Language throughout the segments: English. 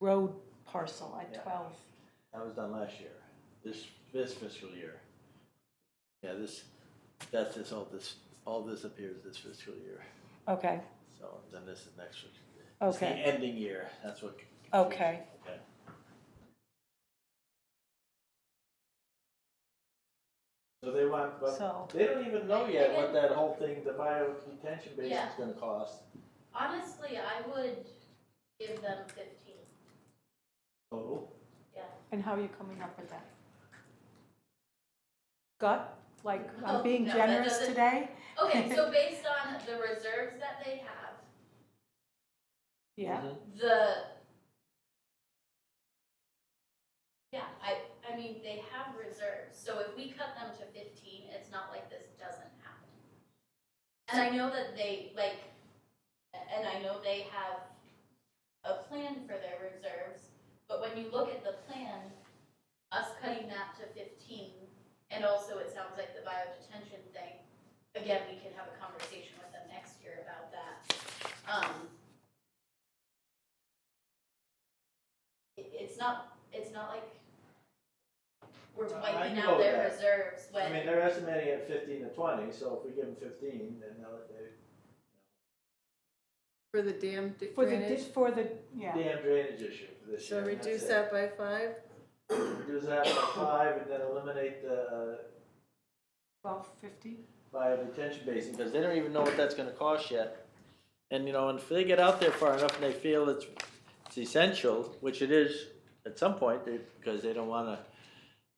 road parcel at Yeah. twelve. That was done last year, this, this fiscal year. Yeah, this, that's this, all this, all this appears this fiscal year, Okay, so then this is next week. It's the Okay. ending year, that's what. confuses Okay. me, Okay. So they want, but so, they don't even know yet what that whole thing, the bio detention base is Yeah. gonna cost. Honestly, I would give them fifteen, Oh, yeah. and how are you coming up with that? Gut, like, I'm Oh, being no, that generous doesn't- today? Okay, so based on the reserves that they have, Yeah, mhm. the. Yeah, I, I mean, they have reserves, so if we cut them to fifteen, it's not like this doesn't happen. And I know that they, like, a- and I know they have a plan for their reserves, but when you look at the plan, us cutting that to fifteen, and also it sounds like the bio detention thing, again, we can have a conversation with them next year about that. Um. It, it's not, it's not like we're I- I wiping can go out with their that. reserves I mean, when, they're estimating at fifteen to twenty, so if we give them fifteen, then they'll, they, For the dam d- for the, dis- drainage, for the, yeah, damn drainage issue for this so year. and that's reduce it. that by five? Reduce that by five and then eliminate the twelve fifty. bio detention basin, because they don't even know what that's gonna cost yet. And, you know, and if they get out there far enough and they feel it's, it's essential, which it is at some point, they, because they don't wanna,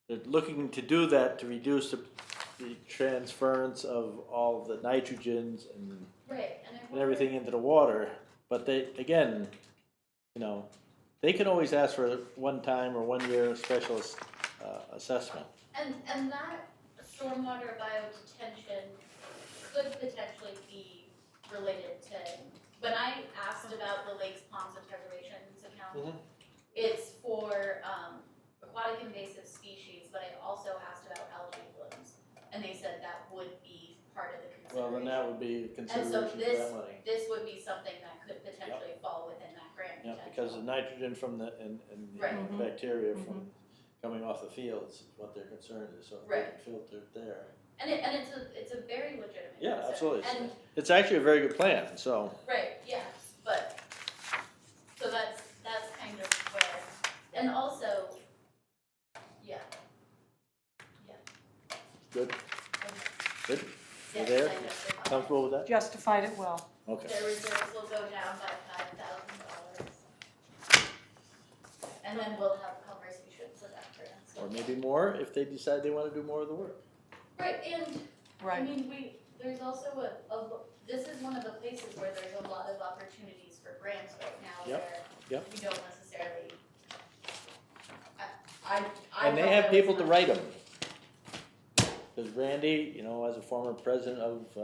they're looking to do that to reduce the, the transference of all the nitrogens and right, and I and wonder- everything into the water, but they, again, you know, they can always ask for a one-time or one-year special uh, assessment. And, and that stormwater biodetention could potentially be related to, when I asked about the lakes, ponds, and reservations account, Mhm. it's for, um, aquatic invasive species, but I also asked about algae blooms, and they said that would be part of the Well, consideration. then that would be consideration for that this- money. This would be something that could potentially fall within that grant Yeah, potential. because the nitrogen from the, and, and Right. Mm-hmm. the Mhm. bacteria from coming off the fields is what their concern is, so if they Right. can filter it there. And it, and it's a, it's a very legitimate concern. Yeah, absolutely. And It's actually a very good plan, so, Right, yes, but, so that's, that's kind of where, and also, yeah, good, and good, You yes, there? I know the comment. comfortable with that? Justified it well. Okay. Their reserves will go down by five thousand dollars. And then we'll have conversations with that grant, so. Or maybe more if they decide they wanna do more of the work. Right, and, I Right, mean, we, there's also a, a, lo- this is one of the places where there's a lot of opportunities for grants right now Yep, where yep. we don't necessarily. I, I, I. And they felt have there was people to not- write them. Because Randy, you know, as a former president of uh,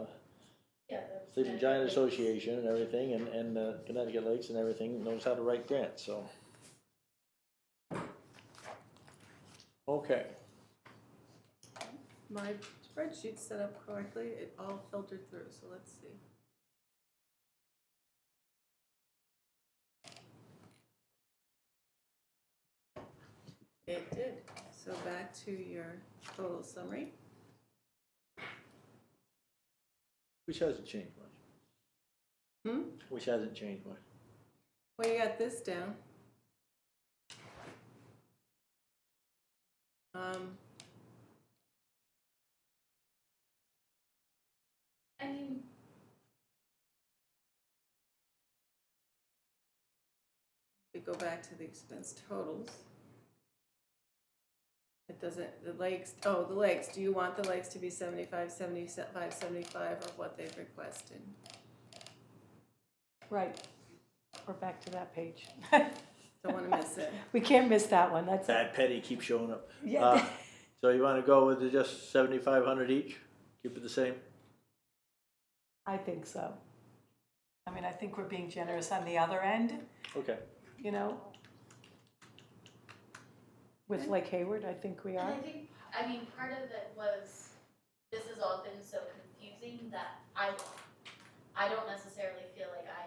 Yeah, the- Sleeping Giant Association and everything, and, and uh, Connecticut Lakes and everything, knows how to write grants, so. Okay, My spreadsheet's set up correctly, it all filtered through, so let's see. It did, so back to your total summary. which hasn't changed much. Hmm? Which hasn't changed much. Well, you got this down. Um, I mean. we go back to the expense totals. It doesn't, the lakes, oh, the lakes, do you want the lakes to be seventy-five, seventy-five, seventy-five of what they've requested? right. We're back to that page. Don't wanna miss it. We can't miss that one, that's, That petty keeps showing up. Uh, yeah, So you wanna go with the just seventy-five hundred each, keep it the same? I think so. I mean, I think we're being generous on the other end, Okay, you know? With Lake Hayward, I think we And are. I think, I mean, part of it was, this has all been so confusing that I, I don't necessarily feel like I